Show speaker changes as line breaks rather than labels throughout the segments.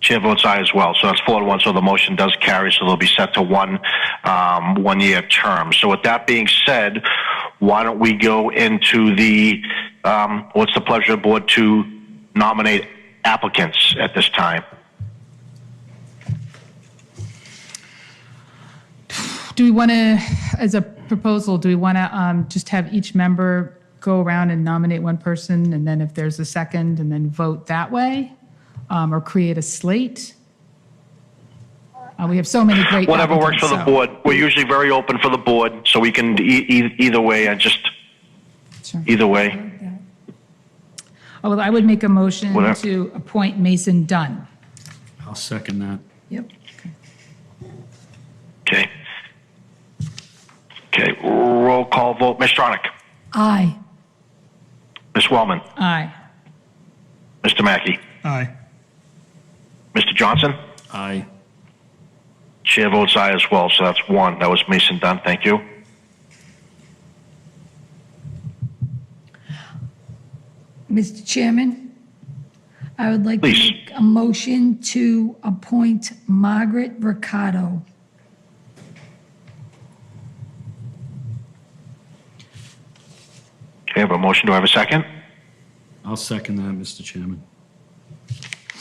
Chair votes aye as well. So that's four to one. So the motion does carry. So they'll be set to one, um, one year term. So with that being said, why don't we go into the, um, what's the pleasure of the board to nominate applicants at this time?
Do we want to, as a proposal, do we want to just have each member go around and nominate one person, and then if there's a second, and then vote that way? Um, Or create a slate? Uh, We have so many great
Whatever works for the
applicants,
board. We're usually very open for the board, so we can, e- e- either way, I just,
so- Sure.
either way.
Oh, well, I would make a motion
Whatever.
to appoint Mason Dunn.
I'll second that.
Yep.
Okay. Okay, roll call vote. Ms. Stronach,
Aye.
Ms. Wellman,
Aye.
Mr. Mackey,
Aye.
Mr. Johnson?
Aye.
Chair votes aye as well, so that's one. That was Mason Dunn, thank you.
Mr. Chairman, I would like to
Please.
make a motion to appoint Margaret Ricardo.
Okay, I have a motion, do I have a second?
I'll second that, Mr. Chairman.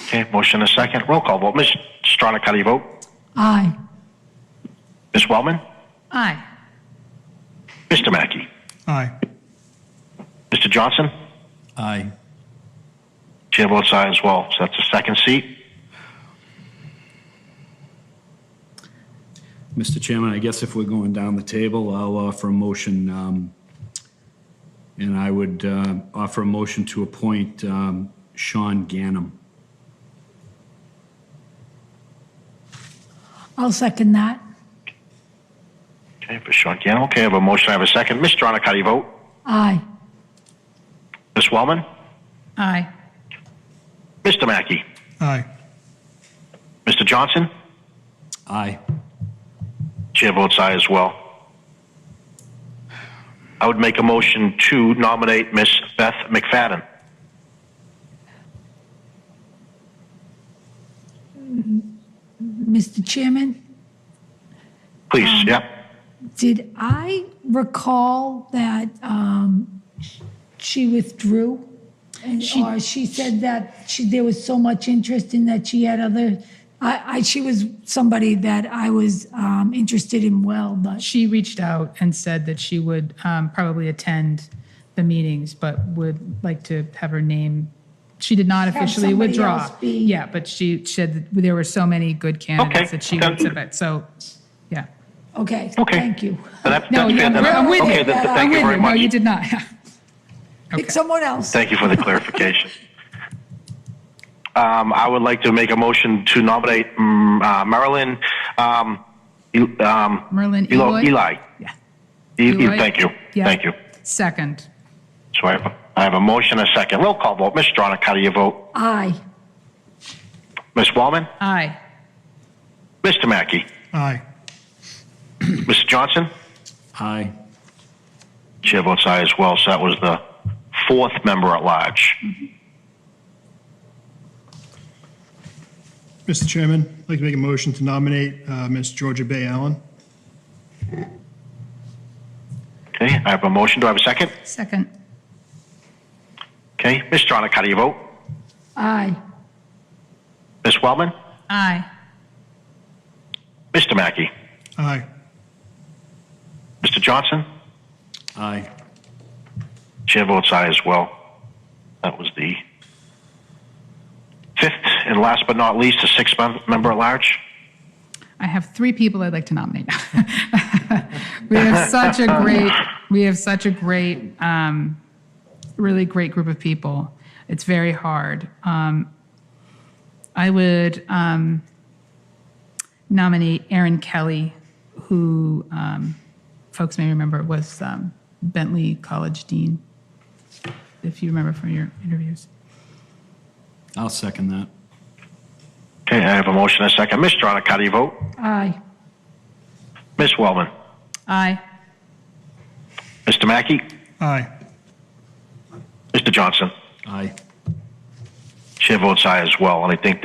Okay, motion and a second, roll call vote. Ms. Stronach, how do you vote?
Aye.
Ms. Wellman?
Aye.
Mr. Mackey?
Aye.
Mr. Johnson?
Aye.
Chair votes aye as well, so that's the second seat.
Mr. Chairman, I guess if we're going down the table, I'll offer a motion, um, and I would uh, offer a motion to appoint um, Sean Ganem.
I'll second that.
Okay, for Sean Gannon, okay, I have a motion, I have a second. Ms. Stronach, how do you vote?
Aye.
Ms. Wellman?
Aye.
Mr. Mackey?
Aye.
Mr. Johnson?
Aye.
Chair votes aye as well. I would make a motion to nominate Ms. Beth McFadden.
Mr. Chairman,
Please,
Um,
yep.
did I recall that um, she withdrew? And- Or she said that she, there was so much interest in that she had other, I, I, she was somebody that I was um, interested in well, but.
She reached out and said that she would um, probably attend the meetings, but would like to have her name. She did not officially
somebody
withdraw.
else be-
Yeah, but she said that there were so many good candidates that she
Okay.
would submit, so, yeah.
Okay,
Okay.
thank you.
Then that-
No,
that's fair,
I'm
then.
I'm with you.
Okay, then-
I'm
thank you
with
very
No,
much.
you did not.
Pick someone else.
Thank you for the clarification. Um, I would like to make a motion to nominate mm, uh, Marilyn, um, E- um,
Merlin
Elo-
Eloy?
Eli.
Yeah.
E- E-
Eloy?
Thank you,
Yeah.
thank you.
Second.
So I have, a- I have a motion, and a second. Roll call vote. Ms. Stronach, how do you vote?
Aye.
Ms. Wallman?
Aye.
Mr. Mackey?
Aye.
Mr. Johnson?
Aye.
Chair votes aye as well, so that was the fourth member at large.
Mr. Chairman, I'd like to make a motion to nominate uh, Ms. Georgia Bay Allen.
Okay, I have a motion. Do I have a second?
Second.
Okay, Ms. Stronach, how do you vote?
Aye.
Ms. Wellman?
Aye.
Mr. Mackey?
Aye.
Mr. Johnson?
Aye.
Chair votes aye as well. That was the fifth and last but not least, the sixth mem- member at large.
I have three people I'd like to nominate. we have such a great, we have such a great, um, really great group of people. It's very hard. Um, I would um, nominate Aaron Kelly, who um, folks may remember was um, Bentley College Dean, if you remember from your interviews.
I'll second that.
Okay, I have a motion and a second. Ms. Stronach, how do you vote?
Aye.
Ms. Wellman?
Aye.
Mr. Mackey?
Aye.
Mr. Johnson?
Aye.
Chair votes aye as well, and I think that